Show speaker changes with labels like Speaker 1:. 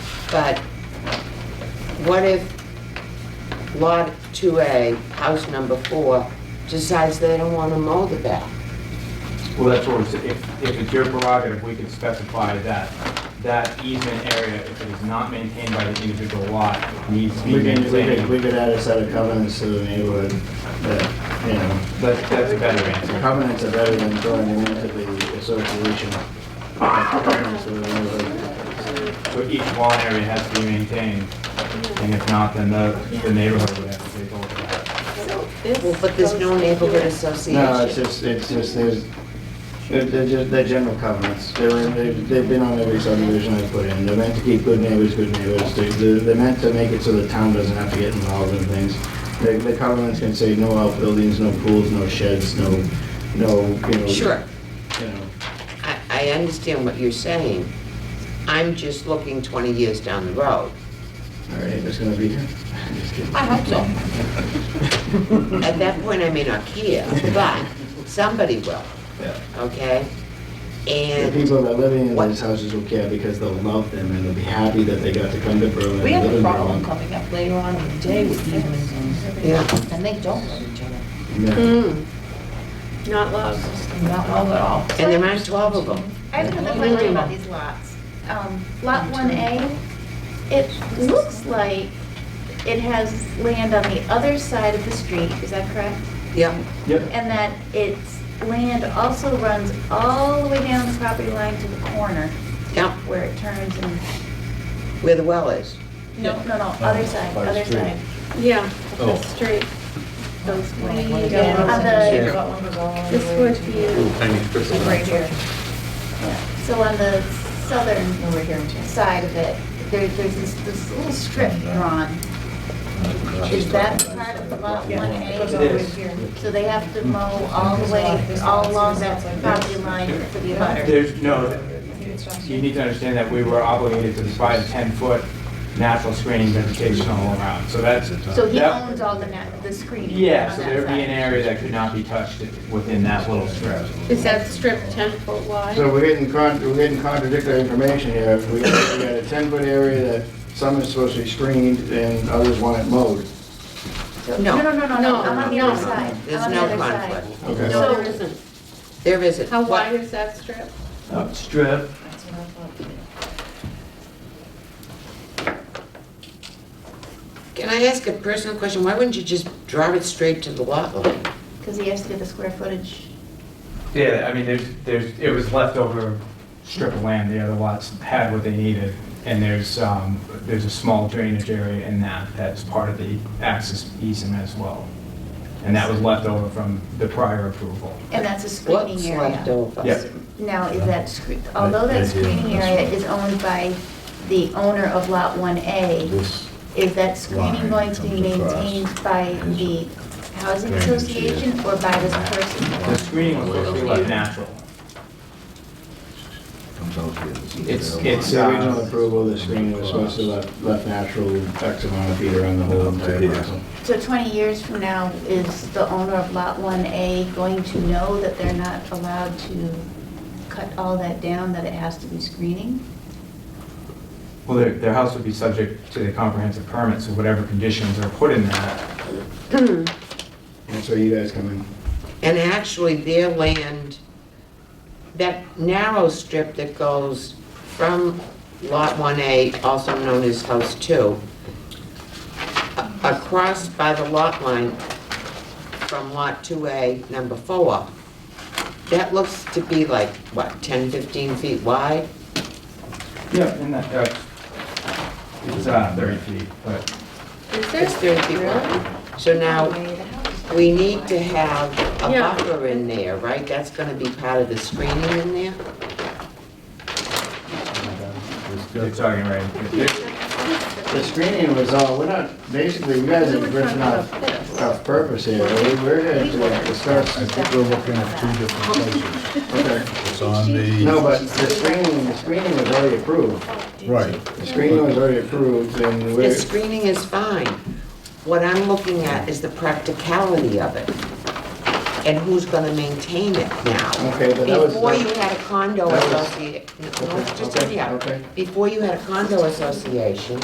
Speaker 1: But what if Lot 2A, house number four, decides they don't want to mow the back?
Speaker 2: Well, that's what we're saying, if, if it's your prerogative, we could specify that, that easement area, if it is not maintained by the individual lot, needs to be
Speaker 3: We can, we could,
Speaker 2: maintained.
Speaker 3: we could add a set of covenants to the neighborhood that, you know,
Speaker 2: That's, that's a better
Speaker 3: the
Speaker 2: answer.
Speaker 3: covenants are better than throwing them into the association. Covenants to the neighborhood.
Speaker 2: So each lawn area has to be maintained, and if not, then the, the neighborhood would have to take over that.
Speaker 4: So this
Speaker 1: Well, but there's no
Speaker 4: goes
Speaker 1: neighborhood
Speaker 4: here.
Speaker 3: No, it's
Speaker 1: association.
Speaker 3: just, it's just, there's, they're, they're just, they're general covenants. They're, in- they've they've been on every subdivision I put in. They're meant to keep good neighbors, good neighbors. They- They're, they're meant to make it so the town doesn't have to get involved in things. The, the covenants can say no outbuildings, no pools, no sheds, no, no, you know.
Speaker 1: Sure,
Speaker 3: You know,
Speaker 1: I, I understand what you're saying. I'm just looking 20 years down the road.
Speaker 3: all right, it's gonna be, just kidding.
Speaker 1: I hope so. At that point, I may not care, but somebody will,
Speaker 3: Yeah.
Speaker 1: okay?
Speaker 3: The
Speaker 1: And,
Speaker 3: people that are living in
Speaker 1: What-
Speaker 3: these houses will care because they'll love them and they'll be happy that they got to come to Berlin and
Speaker 4: We
Speaker 3: live
Speaker 4: have a
Speaker 3: in
Speaker 4: problem
Speaker 3: Berlin.
Speaker 4: coming up later on in the day with humans,
Speaker 1: yeah.
Speaker 4: and they don't love each other.
Speaker 3: Yeah.
Speaker 1: mm,
Speaker 5: Not love.
Speaker 4: Not love at all.
Speaker 1: And there aren't 12 of them.
Speaker 6: I have another question about these lots. Um, Lot 1A, it looks like it has land on the other side of the street, is that correct?
Speaker 1: Yeah.
Speaker 2: Yep.
Speaker 6: And that its land also runs all the way down the property line to the corner
Speaker 1: Yeah,
Speaker 6: where it turns and,
Speaker 1: where the well is.
Speaker 6: no, no, no, other side,
Speaker 7: by the
Speaker 6: other
Speaker 7: street.
Speaker 6: side.
Speaker 5: Yeah,
Speaker 7: Oh.
Speaker 5: the street.
Speaker 6: Those way
Speaker 4: One goes
Speaker 6: down
Speaker 4: all
Speaker 6: on
Speaker 4: the way
Speaker 6: the,
Speaker 4: to one goes all the
Speaker 5: This
Speaker 4: way
Speaker 5: would
Speaker 4: to-
Speaker 5: be,
Speaker 7: Tiny strips of
Speaker 6: right
Speaker 7: land.
Speaker 6: here. Yeah. So on the southern
Speaker 4: Over here. too.
Speaker 6: side of it, there, there's this, this little strip drawn. Mm-hmm.
Speaker 3: Uh,
Speaker 6: Is that part of the lot
Speaker 4: Yeah,
Speaker 6: one
Speaker 4: it goes all
Speaker 6: A?
Speaker 4: the way
Speaker 2: Yes.
Speaker 4: here.
Speaker 6: So they have to mow all the way, all along that property line to the butter?
Speaker 2: There's, no, you need to understand that we were obligated to provide a ten-foot natural screening vegetation all around, so that's.
Speaker 6: So he
Speaker 2: that-
Speaker 6: owns all the, net- the screening
Speaker 2: Yeah, so
Speaker 6: on that
Speaker 2: there'd be an
Speaker 6: side.
Speaker 2: area that could not be touched within that little strip.
Speaker 5: is that strip 10 foot
Speaker 3: So
Speaker 5: wide?
Speaker 3: we're getting con, we're getting contradictory information here. We got, we got a ten-foot area that some is supposed to be screened and others want it mowed.
Speaker 6: So-
Speaker 1: No.
Speaker 6: No, no, no,
Speaker 5: No,
Speaker 6: no, I'm on the
Speaker 5: no.
Speaker 6: other side. I'm
Speaker 1: There's
Speaker 6: on the
Speaker 1: no
Speaker 6: other side.
Speaker 1: conflict.
Speaker 3: Okay.
Speaker 5: No, there isn't.
Speaker 1: There isn't.
Speaker 5: How
Speaker 1: What-
Speaker 5: wide is that strip?
Speaker 2: Strip,
Speaker 4: That's what I thought.
Speaker 1: Can I ask a personal question? Why wouldn't you just drive it straight to the lot line?
Speaker 6: Because he has to get the square footage.
Speaker 2: yeah, I mean, there's, there's, it was leftover strip of land, the other lots had what they needed, and there's, um, there's a small drainage area in that, that's part of the access easement as well. And that was left over from the prior approval.
Speaker 6: And that's a screening
Speaker 1: What's
Speaker 6: area.
Speaker 1: left over?
Speaker 2: Yeah.
Speaker 6: Now, is that, scre- although that screening area is owned by the owner of Lot 1A,
Speaker 7: This
Speaker 6: is that screening going to be maintained by the housing association or by this person?
Speaker 2: The screening was supposed to be left natural.
Speaker 7: comes out here. This is
Speaker 2: It's- uh,
Speaker 7: their
Speaker 2: it's-
Speaker 7: line.
Speaker 3: The original approval, the screening was supposed to left, left natural X amount of feet around the whole entire parcel.
Speaker 6: So 20 years from now, is the owner of Lot 1A going to know that they're not allowed to cut all that down, that it has to be screening?
Speaker 2: Well, their, their house would be subject to the comprehensive permit, so whatever conditions are put in that,
Speaker 3: That's where you guys come in.
Speaker 1: And actually, their land, that narrow strip that goes from Lot 1A, also known as House 2, a- across by the lot line from Lot 2A, number 4, that looks to be like, what, 10, 15 feet wide?
Speaker 2: yeah, in that, uh, it's, uh, thirty feet, but
Speaker 5: Is
Speaker 1: It's
Speaker 5: there?
Speaker 1: 30 feet wide. So now,
Speaker 6: Way the house.
Speaker 1: we need to have a
Speaker 5: Yeah.
Speaker 1: buffer in there, right? That's gonna be part of the screening in there?
Speaker 2: you're talking right.
Speaker 3: The screening was all, we're not, basically, you guys
Speaker 5: We
Speaker 3: are
Speaker 5: were
Speaker 3: ripping
Speaker 5: talking
Speaker 3: off,
Speaker 5: about this.
Speaker 3: off purpose here. We- We're here to uh, discuss.
Speaker 7: I think we're looking at two different places.
Speaker 3: Okay.
Speaker 7: It's on
Speaker 3: No,
Speaker 7: the,
Speaker 3: but the screening, the screening was already approved.
Speaker 7: right.
Speaker 3: The screening was already approved and
Speaker 1: The
Speaker 3: we're,
Speaker 1: screening is fine. What I'm looking at is the practicality of it. and who's gonna maintain it now.
Speaker 3: Okay, but that was.
Speaker 1: Before you had a condo
Speaker 3: that was-
Speaker 1: associate, no,
Speaker 3: Okay,
Speaker 1: just,
Speaker 3: okay,
Speaker 1: yeah,
Speaker 3: okay.
Speaker 1: before you had a condo association,